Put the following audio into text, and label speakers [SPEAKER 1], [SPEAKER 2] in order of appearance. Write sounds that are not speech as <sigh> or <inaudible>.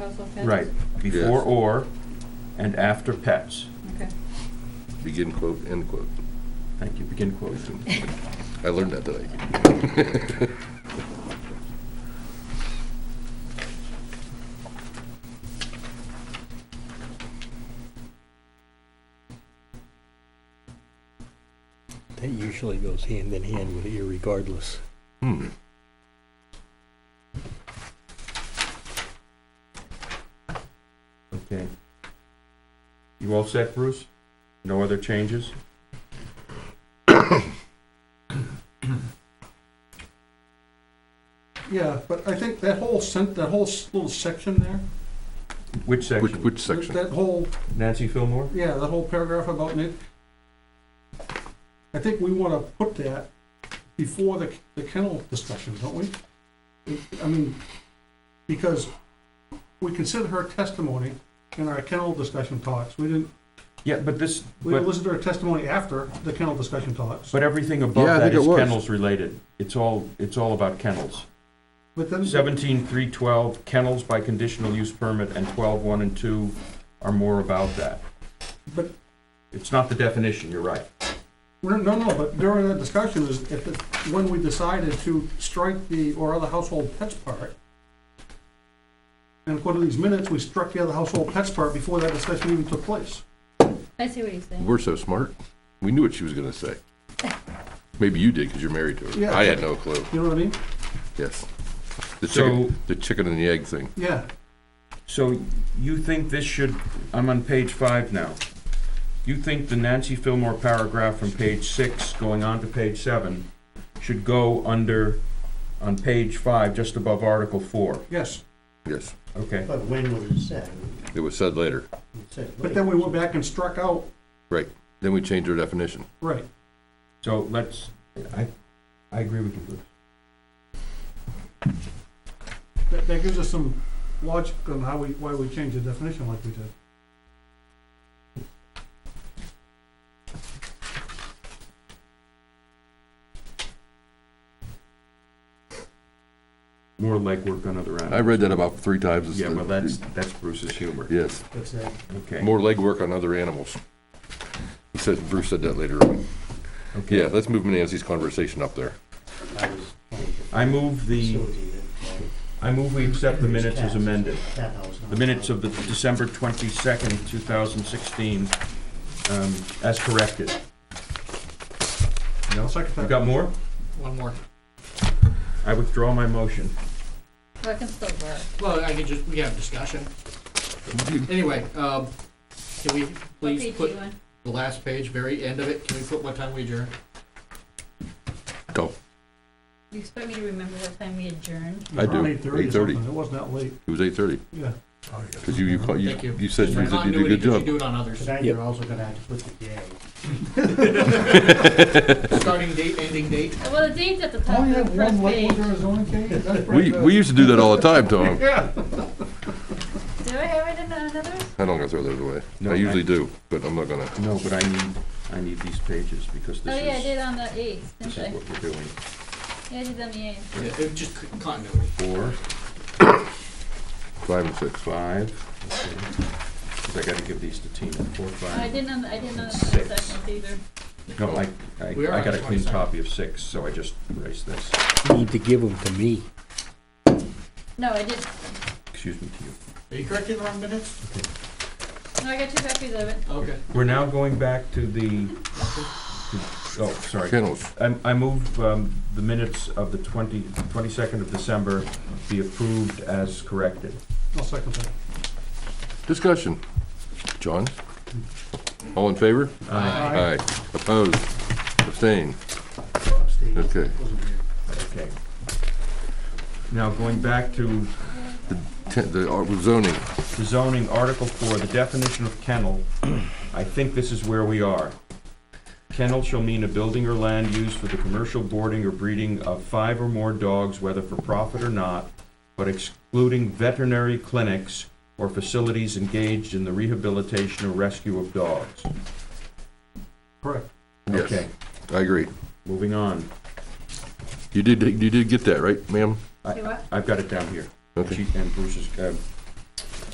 [SPEAKER 1] spousal offense?
[SPEAKER 2] Right, before or and after pets.
[SPEAKER 1] Okay.
[SPEAKER 3] Begin quote, end quote.
[SPEAKER 2] Thank you, begin quote.
[SPEAKER 3] I learned that today.
[SPEAKER 4] That usually goes hand in hand with irregardless.
[SPEAKER 3] Hmm.
[SPEAKER 2] Okay. You all set, Bruce? No other changes?
[SPEAKER 5] Yeah, but I think that whole sent, that whole s- little section there,
[SPEAKER 2] Which
[SPEAKER 3] Which,
[SPEAKER 2] section?
[SPEAKER 3] which section?
[SPEAKER 5] that whole,
[SPEAKER 2] Nancy Fillmore?
[SPEAKER 5] yeah, that whole paragraph about it. I think we wanna put that before the, the kennel discussion, don't we? I mean, because we consider her testimony in our kennel discussion talks. We didn't,
[SPEAKER 2] Yeah, but this,
[SPEAKER 5] we
[SPEAKER 2] but,
[SPEAKER 5] listened to her testimony after the kennel discussion talks.
[SPEAKER 2] but everything above
[SPEAKER 3] Yeah, I
[SPEAKER 2] that
[SPEAKER 3] think it
[SPEAKER 2] is
[SPEAKER 3] was.
[SPEAKER 2] kennels related. It's all, it's all about kennels.
[SPEAKER 5] But then,
[SPEAKER 2] Seventeen three twelve kennels by conditional use permit and twelve one and two are more about that.
[SPEAKER 5] but,
[SPEAKER 2] It's not the definition, you're right.
[SPEAKER 5] no, no, no, but during that discussion is, if, the- when we decided to strike the, or other household pets part, and according to these minutes, we struck the other household pets part before that discussion even took place.
[SPEAKER 1] I see what you're saying.
[SPEAKER 3] We're so smart. We knew what she was gonna say. Maybe you did, because you're married to her.
[SPEAKER 5] Yeah.
[SPEAKER 3] I had no clue.
[SPEAKER 5] You know what I mean?
[SPEAKER 3] Yes. The
[SPEAKER 2] So-
[SPEAKER 3] chicken, the chicken and the egg thing.
[SPEAKER 5] Yeah,
[SPEAKER 2] So you think this should, I'm on page five now. You think the Nancy Fillmore paragraph from page six going on to page seven should go under, on page five, just above article four?
[SPEAKER 5] yes.
[SPEAKER 3] Yes,
[SPEAKER 2] Okay,
[SPEAKER 6] But when was it said?
[SPEAKER 3] it was said later.
[SPEAKER 6] It said
[SPEAKER 5] But then we went back and struck out,
[SPEAKER 3] Right. Then we changed our definition.
[SPEAKER 5] right.
[SPEAKER 2] so let's, I, I agree with you, Bruce.
[SPEAKER 5] That, that gives us some logic on how we, why we changed the definition like we did.
[SPEAKER 2] More legwork on other
[SPEAKER 3] I
[SPEAKER 2] animals.
[SPEAKER 3] read that about three times. It's
[SPEAKER 2] Yeah,
[SPEAKER 3] the-
[SPEAKER 2] well, that's, that's Bruce's humor.
[SPEAKER 3] Yes.
[SPEAKER 6] What's that?
[SPEAKER 2] Okay.
[SPEAKER 3] More legwork on other animals. He said, Bruce said that later on.
[SPEAKER 2] Okay.
[SPEAKER 3] Yeah, let's move Nancy's conversation up there.
[SPEAKER 6] I was trying to
[SPEAKER 2] I move the,
[SPEAKER 6] facilitate it, like,
[SPEAKER 2] I move we accept the minutes as amended.
[SPEAKER 6] that house, not
[SPEAKER 2] The minutes
[SPEAKER 6] that.
[SPEAKER 2] of the December twenty-second, two thousand sixteen, um, as corrected. No,
[SPEAKER 5] Second
[SPEAKER 2] you
[SPEAKER 5] that.
[SPEAKER 2] got more? One more. I withdraw my motion.
[SPEAKER 1] Well, it can still work.
[SPEAKER 7] Well, I could just, we can have a discussion. Anyway, um, can we
[SPEAKER 1] What
[SPEAKER 7] please
[SPEAKER 1] page do
[SPEAKER 7] put
[SPEAKER 1] you want?
[SPEAKER 7] the last page, very end of it, can we put what time we adjourn?
[SPEAKER 3] Go.
[SPEAKER 1] You expect me to remember what time we adjourned?
[SPEAKER 3] I do.
[SPEAKER 5] Eight thirty or
[SPEAKER 3] 8:30.
[SPEAKER 5] something, it wasn't that late,
[SPEAKER 3] It was eight thirty.
[SPEAKER 5] yeah.
[SPEAKER 3] Because you, you, call- you,
[SPEAKER 7] Thank you.
[SPEAKER 3] you said Bruce that you did a good
[SPEAKER 7] Continuity, 'cause
[SPEAKER 3] job.
[SPEAKER 7] You do it on others.
[SPEAKER 6] Tonight,
[SPEAKER 3] Yep.
[SPEAKER 6] you're also gonna have to put the day.
[SPEAKER 7] Starting date, ending date.
[SPEAKER 1] Well, the date's at the top of the first page.
[SPEAKER 5] zoning change? That's pretty
[SPEAKER 3] We,
[SPEAKER 5] good.
[SPEAKER 3] we used to do that all the time, <laughs> Tom.
[SPEAKER 5] Yeah.
[SPEAKER 1] Do I have it in another?
[SPEAKER 3] I'm not gonna throw those away.
[SPEAKER 2] No,
[SPEAKER 3] I
[SPEAKER 2] I-
[SPEAKER 3] usually do, but I'm not gonna.
[SPEAKER 2] No, but I need, I need these pages because
[SPEAKER 1] Oh, yeah, I
[SPEAKER 2] this is,
[SPEAKER 1] did on the eighth,
[SPEAKER 2] this
[SPEAKER 1] didn't
[SPEAKER 2] is
[SPEAKER 1] I?
[SPEAKER 2] what we're doing.
[SPEAKER 1] Yeah, I did on the eighth.
[SPEAKER 7] Yeah, it just c- continuity.
[SPEAKER 2] Four,
[SPEAKER 3] Five and six.
[SPEAKER 2] five, okay. 'Cause I gotta give these to Tina, four,
[SPEAKER 1] Oh, I
[SPEAKER 2] five.
[SPEAKER 1] didn't on, the- I didn't on the
[SPEAKER 2] Six.
[SPEAKER 1] second either.
[SPEAKER 2] No, I, I,
[SPEAKER 7] We are
[SPEAKER 2] I got a
[SPEAKER 7] on
[SPEAKER 2] clean
[SPEAKER 7] 22nd.
[SPEAKER 2] copy of six, so I just erased this.
[SPEAKER 4] You need to give them to me.
[SPEAKER 1] No, I did,
[SPEAKER 2] Excuse me to you.
[SPEAKER 7] Are you correcting the wrong minutes?
[SPEAKER 1] no, I got two copies of it.
[SPEAKER 7] Okay.
[SPEAKER 2] We're now going back to the, oh, sorry.
[SPEAKER 3] Kennels.
[SPEAKER 2] I, I move um, the minutes of the 20, 22nd of December be approved as corrected.
[SPEAKER 5] I'll second that.
[SPEAKER 3] Discussion. John? All in favor? Aye. Opposed? Abstained?
[SPEAKER 6] Upstate.
[SPEAKER 3] Okay.
[SPEAKER 6] Wasn't here.
[SPEAKER 2] Okay. Now, going back to
[SPEAKER 3] Ten- The art with zoning.
[SPEAKER 2] the zoning, Article 4, the definition of kennel, I think this is where we are. Kennel shall mean a building or land used for the commercial boarding or breeding of five or more dogs, whether for profit or not, but excluding veterinary clinics or facilities engaged in the rehabilitation or rescue of dogs.
[SPEAKER 5] Correct.
[SPEAKER 3] Yes,
[SPEAKER 2] Okay,
[SPEAKER 3] I agree.
[SPEAKER 2] moving on.
[SPEAKER 3] You did, you did get that, right, ma'am?
[SPEAKER 1] Do what?
[SPEAKER 2] I've got it down here.
[SPEAKER 3] Okay.
[SPEAKER 2] She- And Bruce's, uh,